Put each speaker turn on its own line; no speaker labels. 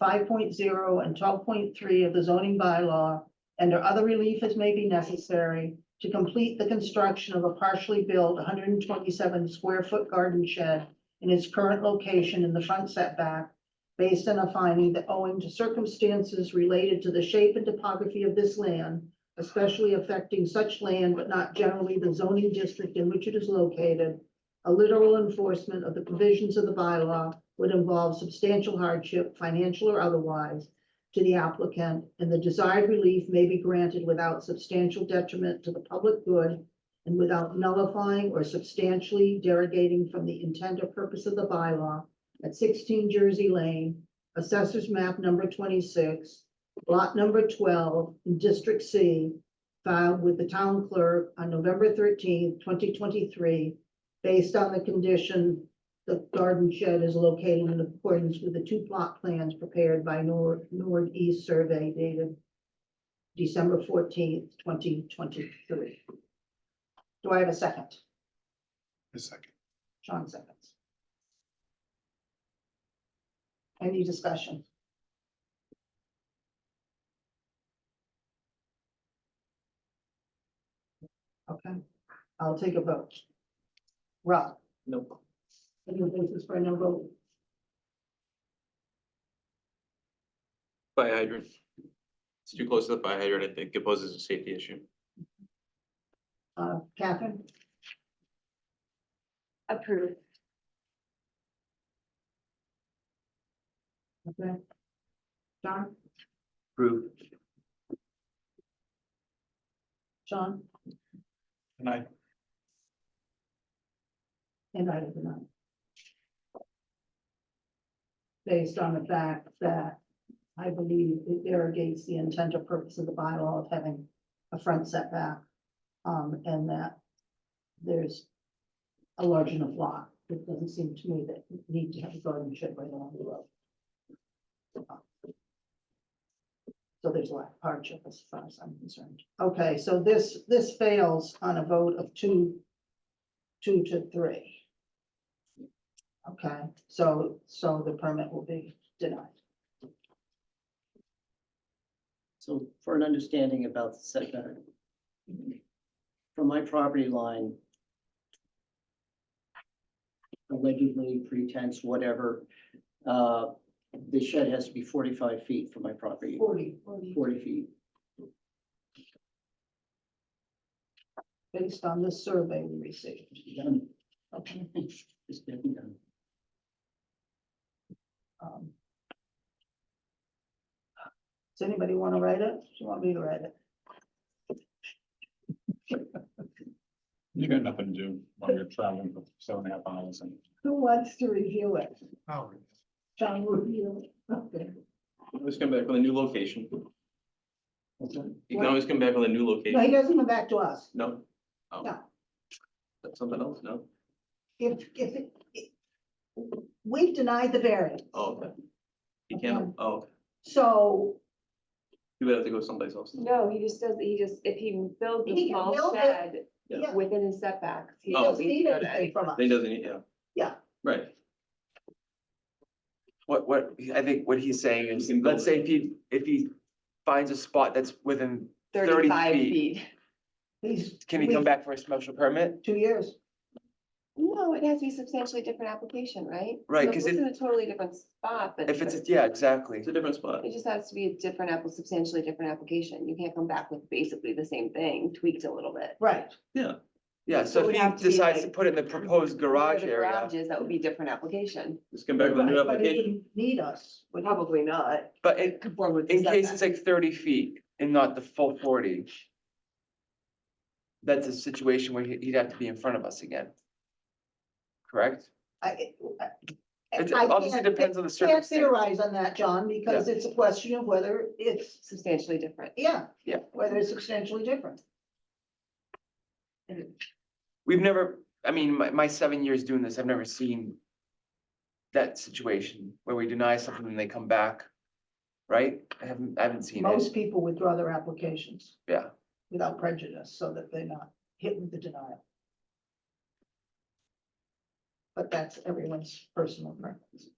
five point zero and twelve point three of the zoning bylaw and or other relief as may be necessary to complete the construction of a partially built one hundred and twenty-seven square foot garden shed in its current location in the front setback based on a finding that owing to circumstances related to the shape and topography of this land, especially affecting such land but not generally the zoning district in which it is located, a literal enforcement of the provisions of the bylaw would involve substantial hardship, financial or otherwise, to the applicant, and the desired relief may be granted without substantial detriment to the public good and without nullifying or substantially derogating from the intent or purpose of the bylaw at sixteen Jersey Lane, assessors map number twenty-six, lot number twelve, in District C, filed with the town clerk on November thirteenth, twenty twenty-three, based on the condition the garden shed is located in accordance with the two plot plans prepared by Nor- Nord East Survey dated December fourteenth, twenty twenty-three. Do I have a second?
A second.
Sean seconds. Any discussion? Okay, I'll take a vote. Rob?
Nope.
Any votes for a no vote?
Fire hydrant. It's too close to the fire hydrant, I think it poses a safety issue.
Uh, Catherine?
Approved.
Okay. John?
Approved.
John?
And I,
And I did not. Based on the fact that I believe it derogates the intent or purpose of the bylaw of having a front setback. Um, and that there's a large enough lot. It doesn't seem to me that you need to have a garden shed right along the road. So there's a lot of hardship as far as I'm concerned. Okay, so this, this fails on a vote of two two to three. Okay, so, so the permit will be denied.
So for an understanding about the setback. From my property line. Allegedly pretense, whatever, uh, the shed has to be forty-five feet from my property,
Forty,
forty feet.
based on the survey we received.
Done.
Okay.
It's been done.
um. Does anybody want to write it? Do you want me to write it?
You got nothing to do when you're traveling for seven and a half hours and
Who wants to review it?
oh,
John will review it. Okay.
Let's come back with a new location. You can always come back with a new
No, he
location.
doesn't come back to us.
No? Oh.
No.
That's something else? No?
If, if, it- it- we've denied the variance.
Oh, okay. You can't, oh,
So
you would have to go someplace else.
No, he just does, he just, if he builds
He
a
can
small
build it.
shed
Yeah.
within his setbacks.
he
Oh.
doesn't need
go to
anything from us.
They doesn't, yeah.
Yeah.
Right.
What, what, I think what he's saying is,
You can
let's
build
say if he, if he finds a spot that's within,
35
feet.
He's.
can he come back for a special permit?
Two years.
No, it has to be substantially different application, right?
Right,
So
'cause
This
it-
is a totally different spot, but.
If it's,
but
yeah, exactly.
It's a different spot.
It just has to be a different apple, substantially different application. You can't come back with basically the same thing tweaked a little bit.
Right.
Yeah,
So it
so
would
if
have to
he
be
decides to
like-
put it in the proposed garage
Where the
area,
garage is, that would be a different application.
Just come back with a new
Right, but he
application.
didn't Need us. Would he?
Probably not.
but in,
Conform with the
in case
setback.
it's like thirty feet and not the full forty. That's a situation where he- he'd have to be in front of us again. Correct?
I- I-
It
I
obviously
can't-
depends on
I
the
Can't
circumstance.
theorize on that, John, because it's a question of whether it's,
Substantially different.
yeah.
Yeah.
Whether it's substantially different.
We've never, I mean, my, my seven years doing this, I've never seen that situation where we deny something and they come back, right? I haven't, I haven't seen it.
Most people withdraw their applications.
Yeah.
Without prejudice, so that they're not hit with the denial. But that's everyone's personal preference.